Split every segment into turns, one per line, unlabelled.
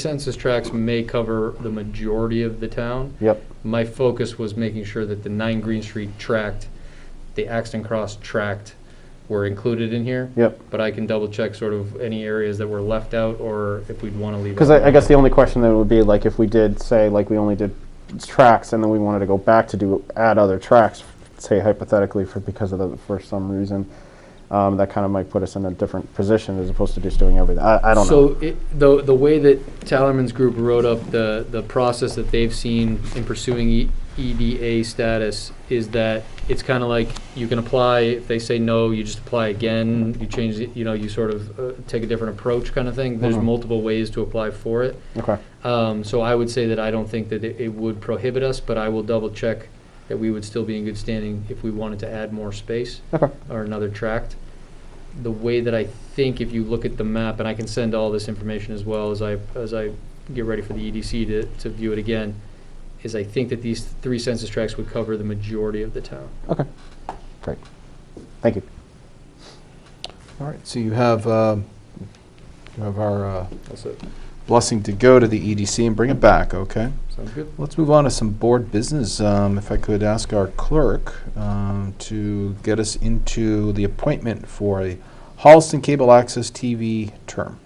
Census tracts may cover the majority of the town.
Yep.
My focus was making sure that the 9 Green Street tract, the Axton Cross tract were included in here.
Yep.
But I can double check sort of any areas that were left out or if we'd want to leave.
Because
out.
I, I guess the only question then would be like if we did say like we only did tracks and then we wanted to go back to do add other tracks, say hypothetically for because of the for some reason, um, that kind of might put us in a different position as opposed to just doing everything. I, I don't know.
So it, the, the way that Tallerman's group wrote up the, the process that they've seen in pursuing E- EDA status is that it's kind of like you can apply, if they say no, you just apply again, you change, it, you know, you sort of uh, take a different approach kind of thing. There's
Mhm.
multiple ways to apply for it.
Okay.
Um, so I would say that I don't think that it, it would prohibit us, but I will double check that we would still be in good standing if we wanted to add more space
Okay.
or another tract. The way that I think, if you look at the map, and I can send all this information as well as I, as I get ready for the EDC to, to view it again, is I think that these three census tracts would cover the majority of the town.
Okay. Great. Thank you.
All right, so you have, um, you have our uh,
That's it.
blessing to go to the EDC and bring it back, okay?
Sounds good?
Let's move on to some board business. Um, If I could ask our clerk um, to get us into the appointment for a Holliston Cable Access TV term.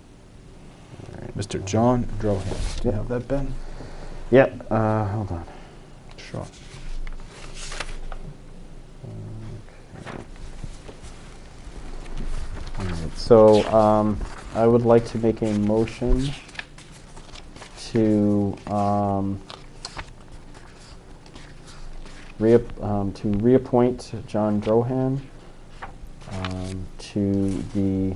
Mr. John Drohan. Do
Yep.
you have that, Ben?
Yep. Uh, hold on.
Sure.
All right. So um, I would like to make a motion to um, reap, um, to reappoint John Drohan um, to the.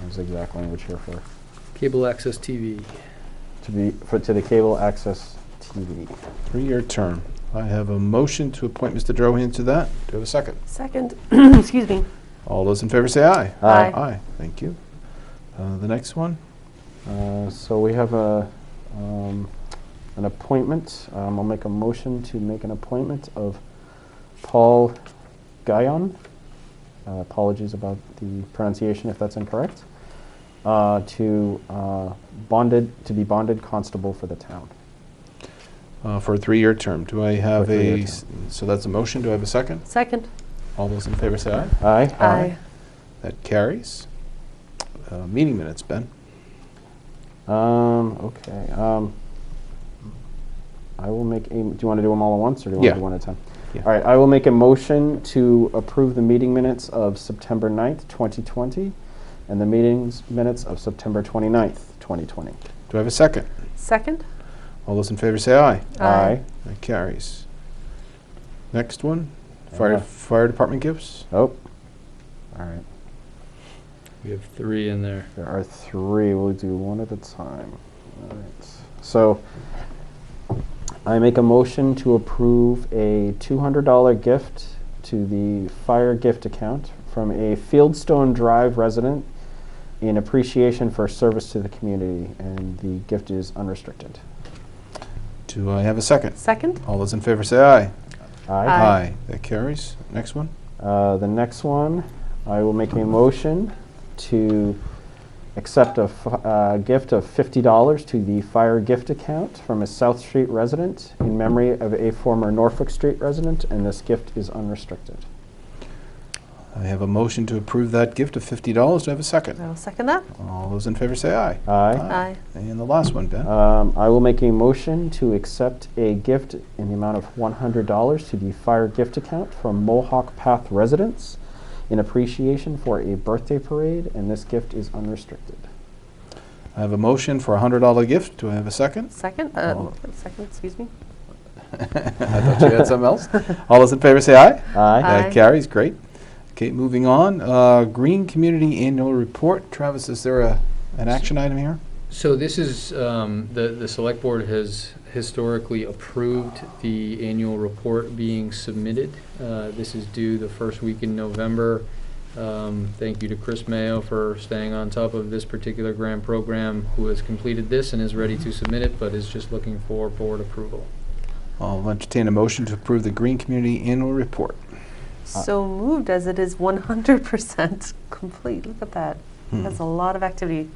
What's the exact language here for?
Cable access TV.
To be for to the cable access TV.
Three-year term. I have a motion to appoint Mr. Drohan to that. Do I have a second?
Second, excuse me.
All those in favor say aye.
Aye.
Aye, thank you. Uh, The next one?
Uh, So we have a, um, an appointment. Um, I'll make a motion to make an appointment of Paul Guyon. Uh, Apologies about the pronunciation if that's incorrect. Uh, To uh, bonded, to be bonded constable for the town.
uh, for a three-year term. Do I have
For a three-year
a, s- so that's a motion, do I have a second?
Second?
All those in favor say aye.
Aye?
That carries. Uh, Meeting minutes, Ben.
Um, Okay. um, I will make a, do you want to do them all at once or do you want to
Yeah.
do one at a time?
Yeah.
All right, I will make a motion to approve the meeting minutes of September 9th, 2020, and the meetings minutes of September 29th, 2020.
Do I have a second?
Second?
All those in favor say aye.
Aye.
That carries. Next one,
Uh-huh.
fire, fire department gifts.
Oh, all right,
We have three in there.
there are three, we'll do one at a time. All right, so I make a motion to approve a $200 gift to the fire gift account from a Fieldstone Drive resident in appreciation for service to the community, and the gift is unrestricted.
Do I have a second?
Second?
All those in favor say aye.
Aye.
Aye.
That carries. Next one.
Uh, The next one, I will make a motion to accept a f- uh, gift of $50 to the fire gift account from a South Street resident in memory of a former Norfolk Street resident, and this gift is unrestricted.
I have a motion to approve that gift of fifty dollars. Do I have a second?
I'll second that.
All those in favor say aye.
Aye.
Aye.
And the last one, Ben.
Um, I will make a motion to accept a gift in the amount of $100 to the fire gift account from Mohawk Path residents in appreciation for a birthday parade, and this gift is unrestricted.
I have a motion for a hundred dollar gift. Do I have a second?
Second? Uh,
Oh.
Second, excuse me.
I thought you had something else. All those in favor say aye.
Aye.
That
Aye.
carries, great. Okay, moving on, uh, Green Community Annual Report. Travis, is there a, an action item here?
So this is, um, the, the select board has historically approved the annual report being submitted. Uh, This is due the first week in November. Um, Thank you to Chris Mayo for staying on top of this particular grant program, who has completed this and is ready to submit it, but is just looking for board approval.
I'll entertain a motion to approve the Green Community Annual Report.
So moved as it is 100% complete. Look at that.
Hmm.
That's a lot of activity.